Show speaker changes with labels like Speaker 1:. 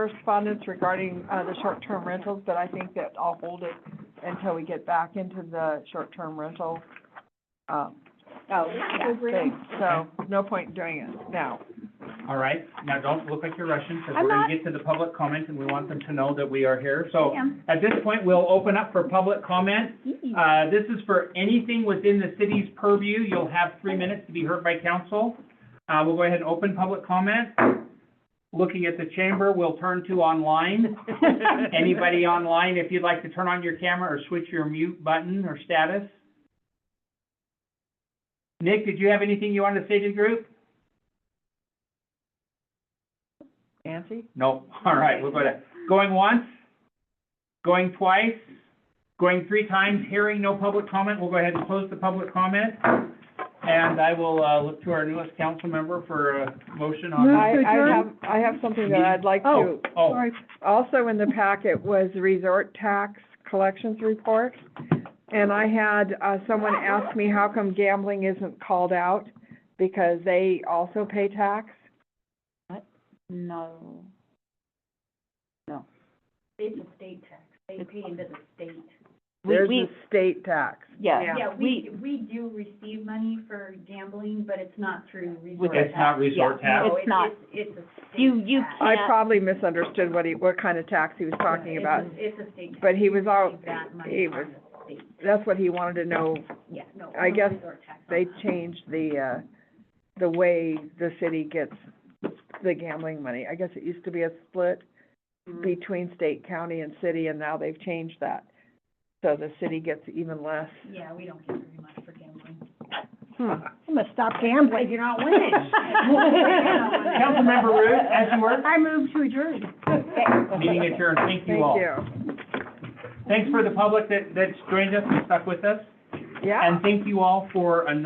Speaker 1: correspondence regarding, uh, the short-term rentals, but I think that I'll hold it until we get back into the short-term rental, um,
Speaker 2: Oh,
Speaker 1: thing. So, no point doing it now.
Speaker 3: All right, now don't look like you're rushing, because
Speaker 2: I'm
Speaker 3: we're
Speaker 2: not.
Speaker 3: gonna get to the public comment, and we want them to know that we are here. So
Speaker 2: Damn.
Speaker 3: at this point, we'll open up for public comment. Uh, this is for anything within the city's purview. You'll have three minutes to be heard by council. Uh, we'll go ahead and open public comment. Looking at the chamber, we'll turn to online. Anybody online, if you'd like to turn on your camera or switch your mute button or status. Nick, did you have anything you wanted to say to the group?
Speaker 1: Nancy?
Speaker 3: No, all right, we'll go to, going once, going twice, going three times, hearing no public comment, we'll go ahead and close the public comment. And I will, uh, look to our newest council member for a motion
Speaker 1: I,
Speaker 3: on that.
Speaker 4: Move to
Speaker 1: I
Speaker 4: adjourn?
Speaker 1: have, I have something that I'd like to,
Speaker 4: Oh.
Speaker 3: Oh,
Speaker 4: Sorry,
Speaker 1: also in the packet was the resort tax collections report. And I had, uh, someone ask me how come gambling isn't called out, because they also pay tax.
Speaker 2: No.
Speaker 5: It's a state tax, they pay into the state.
Speaker 1: There's a state tax.
Speaker 2: Yeah,
Speaker 5: Yeah, we, we do receive money for gambling, but it's not through resort tax.
Speaker 3: it's not resort
Speaker 2: Yeah.
Speaker 3: tax.
Speaker 5: No,
Speaker 2: It's not.
Speaker 5: It's, it's a state
Speaker 2: You- you
Speaker 5: tax.
Speaker 1: I
Speaker 2: Yeah.
Speaker 1: probably misunderstood what he, what kind of tax he was talking
Speaker 5: It's a-
Speaker 1: about,
Speaker 5: It's a state tax.
Speaker 1: but he was all,
Speaker 5: Take that money
Speaker 1: he
Speaker 5: from
Speaker 1: was,
Speaker 5: the state.
Speaker 1: that's what he wanted to know.
Speaker 5: Yeah, no,
Speaker 1: I
Speaker 5: no
Speaker 1: guess
Speaker 5: resort tax on
Speaker 1: They
Speaker 5: that.
Speaker 1: changed the, uh, the way the city gets the gambling money. I guess it used to be a split between state, county, and city, and now they've changed that. So the city gets even less.
Speaker 5: Yeah, we don't get very much for gambling.
Speaker 2: Hmm.
Speaker 4: I'm gonna stop gambling. You're not winning.
Speaker 3: Councilmember Root, as you were,
Speaker 4: I move to adjourn.
Speaker 3: meeting adjourned, thank you
Speaker 1: Thank
Speaker 3: all.
Speaker 1: you.
Speaker 3: Thanks for the public that, that's joined us and stuck with us,
Speaker 1: Yeah.
Speaker 3: and thank you all for another.